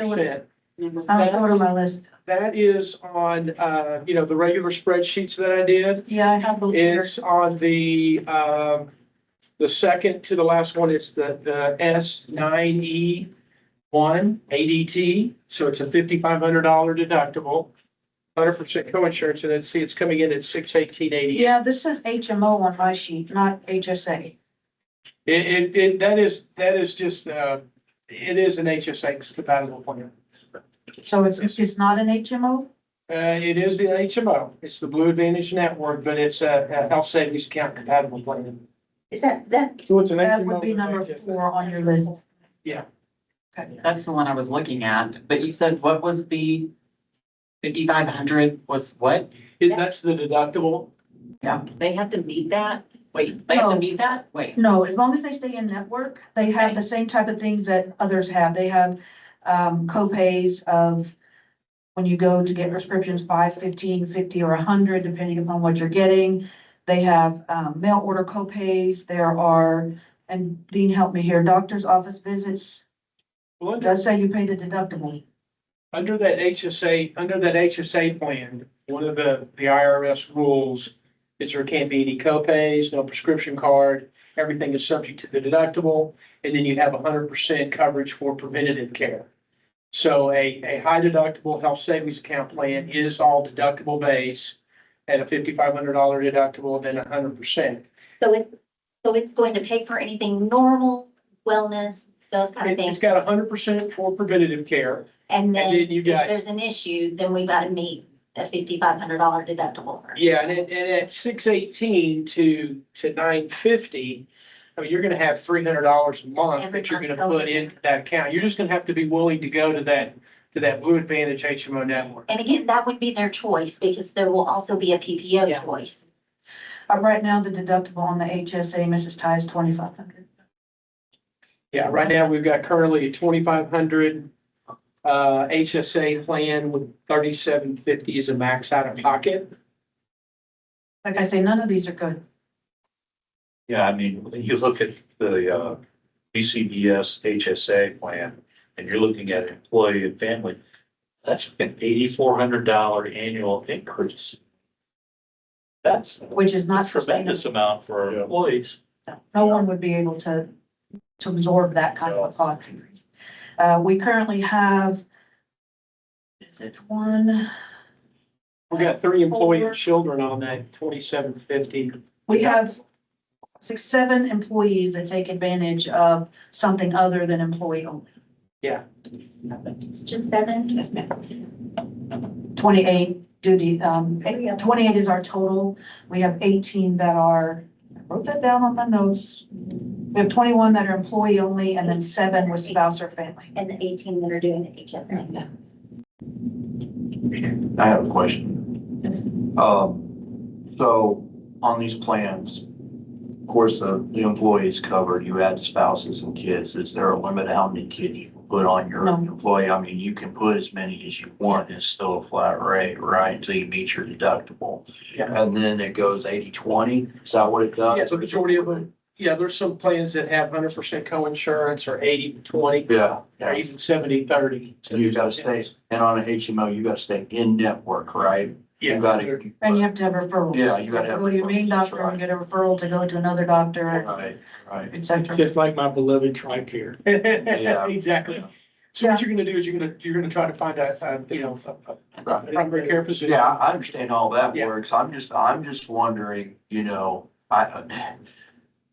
percent. I'll Uh, go to my list. That is on, uh, you know, the regular spreadsheets that I did. Yeah, I have those here. It's on the, um, the second to the last one, it's the, the S nine E one ADT, so it's a fifty-five hundred dollar deductible, hundred percent coinsurance, and then see, it's coming in at six eighteen eighty. Yeah, this is HMO on my sheet, not HSA. It, it, it, that is, that is just, uh, it is an HSA compatible plan. So it's, it's not an HMO? Uh, it is the HMO, it's the Blue Advantage Network, but it's a, a health savings account compatible plan. Is that, that, So it's an That would be number four on your list. That's the one I was looking at, but you said what was the fifty-five hundred was what? That's the deductible. They have to meet that? Wait, they have to No. meet that? Wait. No, as long as they stay in network, they have the same type of things that others have. They have, um, co-pays of when you go to get prescriptions, five, fifteen, fifty, or a hundred, depending upon what you're getting. They have, um, mail order co-pays. There are, and Dean, help me here, doctor's office visits. Well, under- Does say you pay the deductible. Under that HSA, under that HSA plan, one of the, the IRS rules is there can't be any co-pays, no prescription card, everything is subject to the deductible, and then you have hundred percent coverage for preventative care. So a, a high deductible health savings account plan is all deductible base at a fifty-five hundred dollar deductible, then hundred percent. so it, so it's going to pay for anything normal, wellness, those kind of It- It's things? got hundred percent for preventative care, And and then then if you got there's an issue, then we gotta meet a fifty-five hundred dollar deductible. for- Yeah, and it, and at six eighteen to, to nine fifty, I mean, you're gonna have three hundred dollars a month Every that you're month gonna put going. into that account. You're just gonna have to be willing to go to that, to that Blue Advantage HMO network. And again, that would be their choice because there will also be a Yeah. PPO choice. Uh, right now, the deductible on the HSA, Mrs. Ty, is twenty-five hundred. Yeah, right now, we've got currently a twenty-five hundred uh, HSA plan with thirty-seven fifty is a max out of pocket. Like I say, none of these are good. Yeah, I mean, you look at the uh, BCBS HSA plan, and you're looking at employee and family, that's an eighty-four hundred dollar annual increase. That's a which is not tremendous sustainable. amount for our Yeah. employees. No one would be able to, to absorb that kind of a cost increase. Uh, we currently have, is it one? We've got three employee Four. children on that twenty-seven fifty. We have six, seven employees that take advantage of something other than employee only. It's just seven. Yes, ma'am. Twenty-eight do the, um, twenty-eight is our total. We have eighteen that are, I wrote that down on my notes. We have twenty-one that are employee only and then seven with spouse or family. And the eighteen that are doing the HSA. I have a question. Um, so on these plans, of course, the, the employees covered, you add spouses and kids. Is there a limit how many kids you can put on your No. employee? I mean, you can put as many as you want. It's still a flat rate, right? Until you meet your deductible. Yeah. And then it goes 80-20. Is that what it does? Yeah, the majority of them. Yeah, there's some plans that have hundred percent co-insurance or 80-20 Yeah. or yeah. even 70-30. So you gotta stay, and on an HMO, you gotta stay in network, right? Yeah. You gotta. And you have to have referrals. Yeah, you gotta have Go to your main referrals, doctor and right. get a referral to go to another doctor, and Right, right. et cetera. Just like my beloved Tricare. Yeah. Exactly. So what you're gonna do is you're gonna, you're gonna try to find a, a, you know, a- a Right. primary care physician. Yeah, I I understand all that Yeah. works. I'm just, I'm just wondering, you know, I,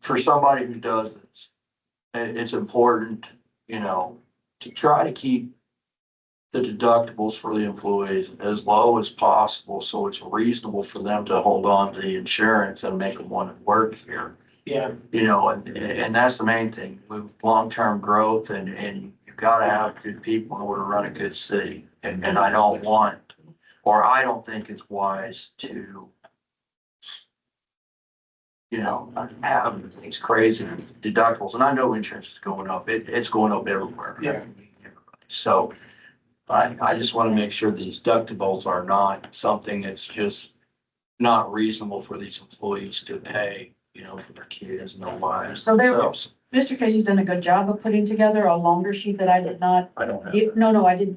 for somebody who does this, it, it's important, you know, to try to keep the deductibles for the employees as low as possible, so it's reasonable for them to hold on to the insurance and make them want to work here Yeah, you know, and, and that's the main thing, with long-term growth and, and you've gotta have good people in order to run a good city. And, and I don't want, or I don't think it's wise to, you know, have these crazy deductibles, and I know insurance is going up, it, it's going up everywhere. Yeah. So I, I just wanna make sure these deductibles are not something that's just not reasonable for these employees to pay, you know, for their kids and their wives. So they're- themselves. Mr. Casey's done a good job of putting together a longer sheet that I did not, I don't have. you- no, no, I didn't